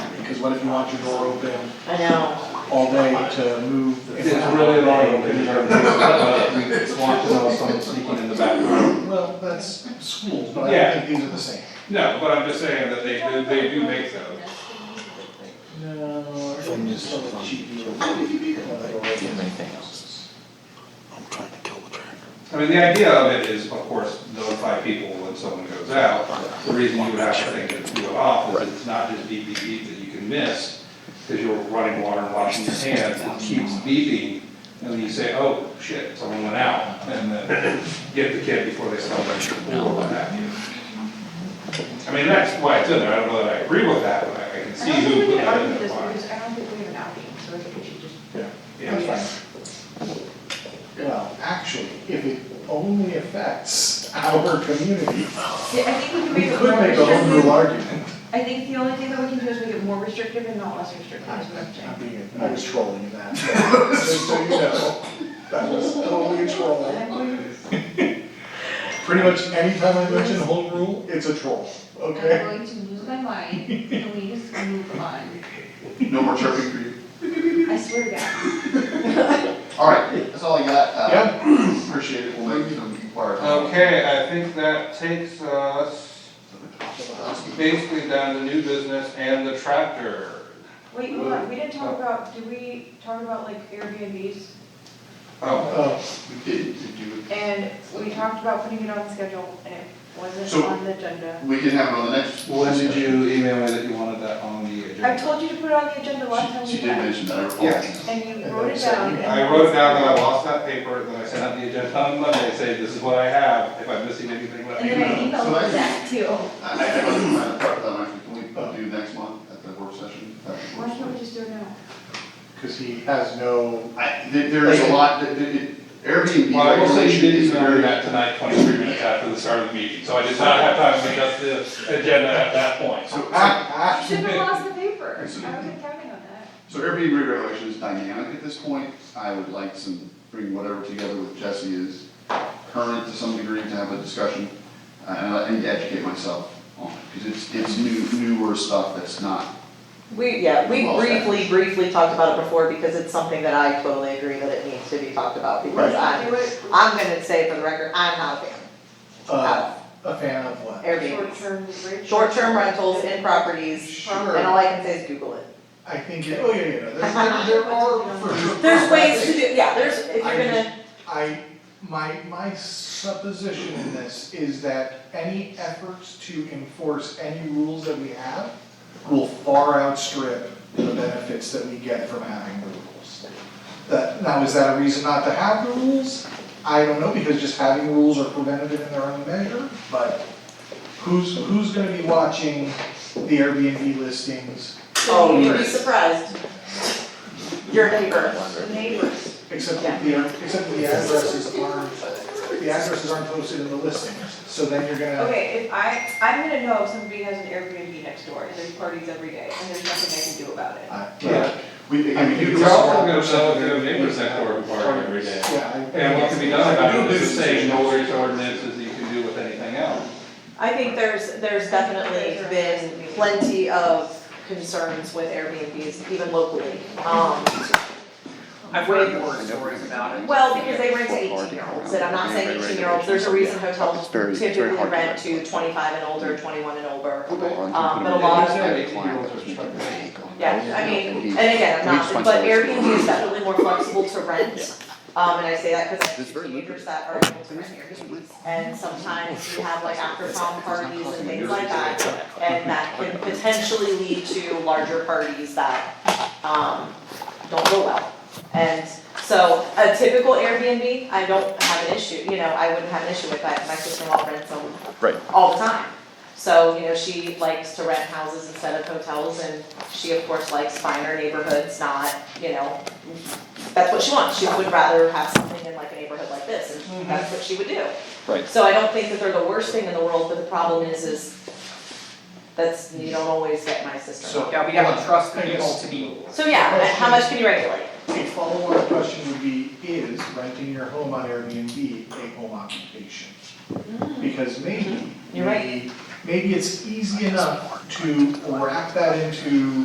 because what if you want your door open I know. all day to move? the- It's really annoying because our kids, uh, we want to know someone sneaking in the back room. Well, that's schools, but I Yeah. don't think these are the same. No, but I'm just saying that they, do- they do make those. No, I think just on the cheap deal. I'm trying to kill the tractor. I mean, the idea of it is, of course, notify people when someone goes out. The reason you would have to think it do it off is it's not just beep, beep, beep that you can miss, because you're running water and washing your hands, it keeps beeping, and then you say, oh, shit, someone went out, and then get the kid before they start their school or what have you. I mean, that's why it's in there, I don't know that I agree with that, but I I can I see don't think who we put can that argue in there. this why. because I don't think we have an outing, so I think we should just. Yeah, it's fine. Well, actually, if it only affects our community, Yeah, I think we can we make it could more make a whole new restrictive. argument. I think the only thing that we can do is make it more restrictive and not less restrictive, is what I'm I'm saying. being, I was trolling in that. Just so you know, that was totally a troll. Pretty much any time I mention home rule, it's a troll, okay? I'm going to lose my mind, please move on. No more chirping for you. I swear to God. Alright, that's all I got. Uh, Yeah. Appreciate it, we'll make some inquiries. Uh, Okay, I think that takes us basically down to new business and the tractor. Wait, hold on, we didn't talk about, did we talk about like Airbnbs? Oh, Uh, We did, did you, And we talked about putting it on the schedule and it wasn't So- on the agenda. we can have it on the next. when did you email me that you wanted that on the I agenda? told you to put it on the agenda last time She, we she did met, mention that, I recall. Yeah. and you And wrote then it said down. you- and- I wrote it down uh, that I lost that paper, then I sent out the agenda on Monday, saying this is what I have, if I'm missing anything, let And me then I know. So I- emailed Zach too. I, I I wasn't trying to prep them, actually, can we do next month at the work session? At the Why work can't we session? just do it now? cause he has no I, there, there is a lot, that- that- it- Airbnb Well, I will say you regulation did is email me very. that tonight, twenty-three minutes after the start of the meeting, so I did not have time to adjust the agenda at that point. So, Ah, You should have lost the paper. I wasn't counting on that. so Airbnb regulation is dynamic at this point, I would like some, bring whatever together with Jesse is current to some degree to have a discussion, uh, and I need to educate myself on it, because it's, it's new, newer stuff that's not We, yeah, we Well said. briefly, briefly talked about it before because it's something that I totally agree that it needs to be talked about because I'm, Do it I'm gonna say for the record, I'm not a fan uh, a fan of of what? Airbnb. short-term rentals. Short-term rentals in properties, Sure. and all I can say is Google it. I think, it- oh, yeah, yeah, no, there's, there there are. for sure- There's ways to do, yeah, there's, if you're I gonna, I, my, my supposition in this is that any efforts to enforce any rules that we have will far outstrip the benefits that we get from having the rules. That, now, is that a reason not to have the rules? I don't know, because just having rules are preventative in their own measure, but who's, who's gonna be watching the Airbnb listings? oh, you'd be right. surprised. Your neighbor. Neighbors. Except that the, except that the addresses aren't, the addresses aren't posted in the listings, so then you're gonna. Okay, if I, I'm gonna know if somebody has an Airbnb next door and there's parties every day and there's nothing I can do about it. I- Yeah. We, I I mean, think you We're it's- can- also gonna sell it to a neighbors next door who park every day. Yeah. I- And what can be done about it is the same noise ordinance as you can do with anything else. I think there's, there's definitely been plenty of concerns with Airbnbs, even locally. Um, I've heard horror stories about it. Well, because they rent to eighteen year olds, and I'm not saying eighteen year olds, there's a reason hotels typically rent to twenty five and older, twenty one and older. Um, but a lot of, yeah, I mean, and again, I'm not, but Airbnb is definitely more flexible to rent. Um, and I say that because It's very teenagers that are able to rent Airbnbs, and sometimes you have like after prom parties and things like that. And that can potentially lead to larger parties that, um, don't go well. And so a typical Airbnb, I don't have an issue, you know, I wouldn't have an issue with that, my sister-in-law rents them Right. all the time. So, you know, she likes to rent houses instead of hotels and she of course likes finer neighborhoods, not, you know, that's what she wants, she would rather have something in like a neighborhood like this and that's what she would do. Right. So I don't think that they're the worst thing in the world, but the problem is, is that's, you don't always get my sister-in-law. Yeah, we have to trust the people to be. So yeah, and how much can you regulate? A follow-up question would be, is renting your home on Airbnb a home occupation? Because maybe, Mm. You're right. maybe, maybe it's easy enough to wrap that into